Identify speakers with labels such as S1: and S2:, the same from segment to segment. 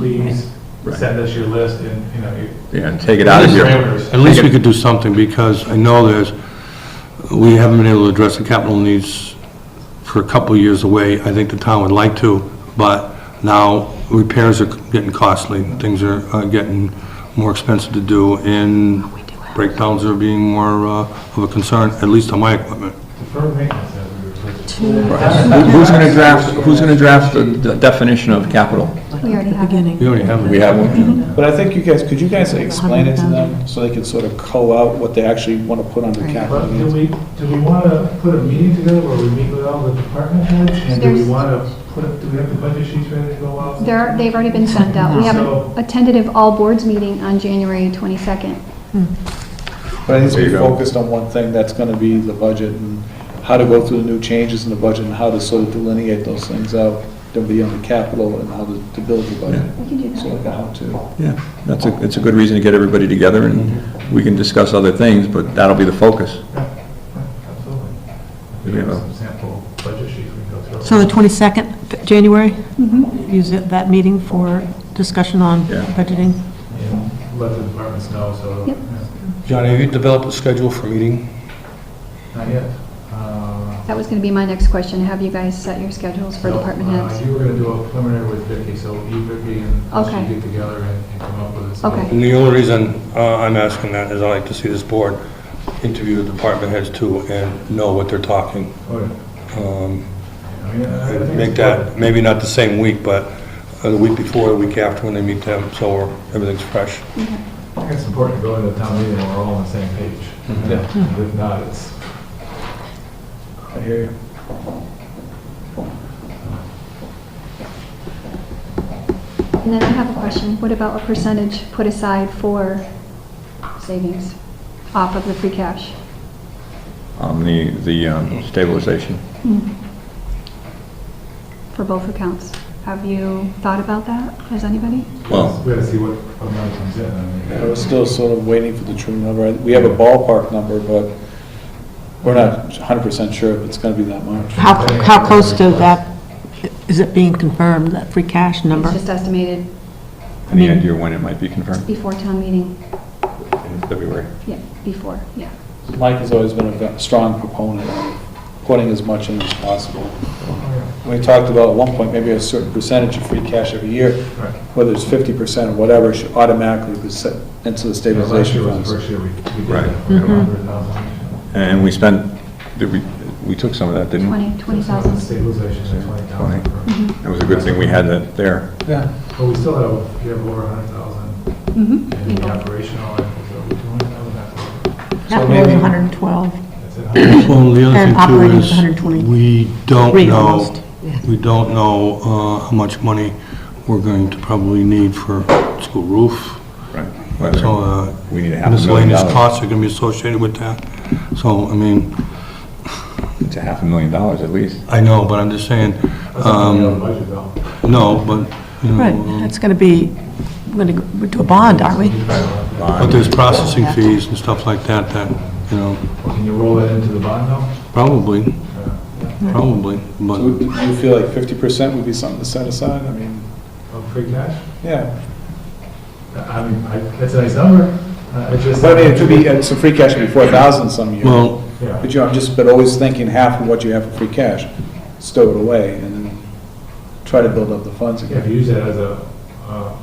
S1: please
S2: Right.
S1: send us your list and, you know, your.
S2: Yeah, take it out of here.
S1: parameters.
S3: At least we could do something, because I know there's, we haven't been able to address the capital needs for a couple of years away. I think the town would like to, but now repairs are getting costly, things are uh, getting more expensive to do, and breakdowns are being more uh, of a concern, at least on my equipment.
S1: Deferred maintenance as we refer to it.
S2: Who- Who's going to draft, who's going to draft the- the definition of capital?
S4: We already have it.
S3: We already have
S2: We have one?
S5: But I think you guys, could you guys explain it to them so they can sort of co out what they actually want to put under capital
S1: But do
S5: needs?
S1: we, do we want to put a meeting together where we meet with all the department heads? And do we
S4: There's-
S1: want to put, do we have the budget sheets ready to go out?
S4: They're, they've already been sent out. We have
S1: So-
S4: a tentative all-boards meeting on January 22nd.
S5: But I think
S2: There you
S5: we
S2: go.
S5: focused on one thing, that's going to be the budget and how to go through the new changes in the budget and how to sort of delineate those things out, then be under capital and how to, to build the budget.
S4: We can do
S5: So like a how-to.
S2: Yeah, that's a, it's a good reason to get everybody together, and we can discuss other things, but that'll be the focus.
S1: Absolutely.
S2: Do we
S1: We
S2: have
S1: have
S2: a-
S1: some sample budget sheets we can go through.
S6: So the 22nd, January,
S4: Mm-hmm.
S6: use it- that meeting for discussion on
S2: Yeah.
S6: budgeting?
S1: And let the departments know, so.
S4: Yep.
S1: yeah,
S3: Johnny, have you developed a schedule for meeting?
S1: Not yet. Uh,
S4: That was going to be my next question. Have you guys set your schedules for
S1: no,
S4: department
S1: uh,
S4: heads?
S1: You were going to do a preliminary with Vicky, so you, Vicky, and us should
S4: Okay.
S1: get together and and come up with it. So-
S4: Okay.
S3: And the only reason uh, I'm asking that is I like to see this board interview the department heads too, and know what they're talking.
S1: Okay. Oh,
S3: Um,
S1: I mean, I- I think
S3: make
S1: it's
S3: that, maybe not the same week, but uh, the week before, the week after, when they meet them, so everything's fresh.
S1: I think it's important to go into the town meeting and we're all on the same page. Yeah. If not, it's,
S5: I hear you.
S4: And then I have a question. What about a percentage put aside for savings off of the free cash?
S2: On the, the um, stabilization.
S4: Hmm. for both accounts. Have you thought about that? Has anybody?
S2: Well-
S1: we gotta see what amount comes in. I mean,
S5: I was still sort of waiting for the true number. We have a ballpark number, but we're not 100% sure if it's going to be that much.
S6: How, how close to that, is it being confirmed, that free cash number?
S4: It's just estimated
S2: Any
S3: Mm-hmm.
S2: idea when it might be confirmed?
S4: before town meeting.
S2: In February.
S4: Yeah, before, yeah.
S5: Mike has always been a ve- strong proponent of putting as much in as possible.
S1: oh,
S5: We talked about at one point, maybe a certain percentage of free cash every year,
S1: Right.
S5: whether it's fifty percent or whatever, should automatically be set into the
S1: You know, Last year
S5: stabilization
S1: was
S5: funds.
S1: the first year we, we did
S2: Right.
S1: that. We had a hundred thousand.
S2: And we spent, did we, we took some of that, didn't we?
S4: 20,
S1: It's
S4: 20,000.
S1: Stabilization, that's twenty thousand.
S4: Mm-hmm.
S1: per-
S2: It was a good thing we had that there.
S5: Yeah,
S1: But we still have, we have over a hundred thousand in the
S4: Mm-hmm.
S1: operational, and so we don't have that.
S5: So
S6: That was
S5: maybe-
S6: 112.
S1: That's it.
S3: Well, the
S6: And
S3: other
S6: operating
S3: thing too
S6: 120.
S3: is, we don't
S6: Three
S3: know,
S6: almost, yeah.
S3: we don't know uh, how much money we're going to probably need for school roof.
S2: Right.
S3: So
S2: Whether
S3: uh,
S2: We need a half a million
S3: miscellaneous
S2: dollars.
S3: costs are going to be associated with that. So, I mean,
S2: It's a half a million dollars at least.
S3: I know, but I'm just saying, um,
S1: That's not
S5: Um,
S1: in the Um, budget though.
S3: no, but, you
S6: Right,
S3: know,
S6: that's going to be, we're going to do a bond, aren't we?
S3: but there's processing fees and stuff like that, that, you know,
S1: Can you roll that into the bond though?
S3: probably,
S1: Uh,
S3: probably, but...
S5: so do you feel like fifty percent would be something to set aside? I mean,
S1: Of Oh, free cash?
S5: yeah,
S1: I mean, I, that's a nice number. Uh, it's just.
S5: but I mean, it could be, uh, so free cash could be four thousand some year.
S3: Well,
S1: Yeah.
S5: But you, know, I'm just, but always thinking half of what you have for free cash, stow it away and then try to build up the funds
S1: Yeah, if
S5: again.
S1: you use that as a, uh,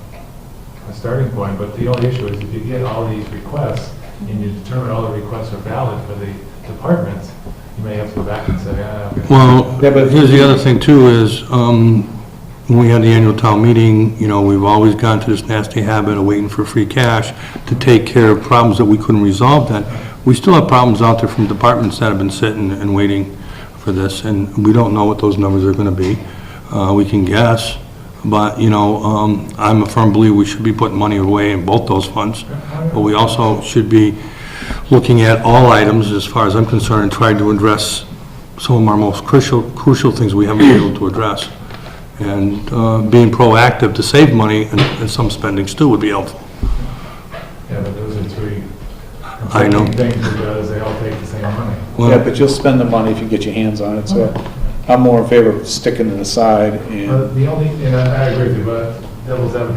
S1: a starting point, but the only issue is if you get all these requests and you determine all the requests are valid for the departments, you may have to go back and say, ah. okay.
S3: Well,
S5: Yeah, but-
S3: here's the other thing too, is, um, when we had the annual town meeting, you know, we've always gone to this nasty habit of waiting for free cash to take care of problems that we couldn't resolve then. We still have problems out there from departments that have been sitting and waiting for this, and we don't know what those numbers are gonna be. Uh, we can guess, but, you know, um, I'm a firm believer we should be putting money away in both those funds, but we also should be looking at all items, as far as I'm concerned, and trying to address some of our most crucial, crucial things we haven't been able to address. And uh, being proactive to save money and and some spendings too would be helpful.
S1: Yeah, but those are three.
S3: I know.
S1: Things because they all take the same money.
S5: Yeah, but you'll spend the money if you get your hands on it, so I'm more in favor of sticking it aside and.
S1: But the only, and I I agree with you, but devil's advocate,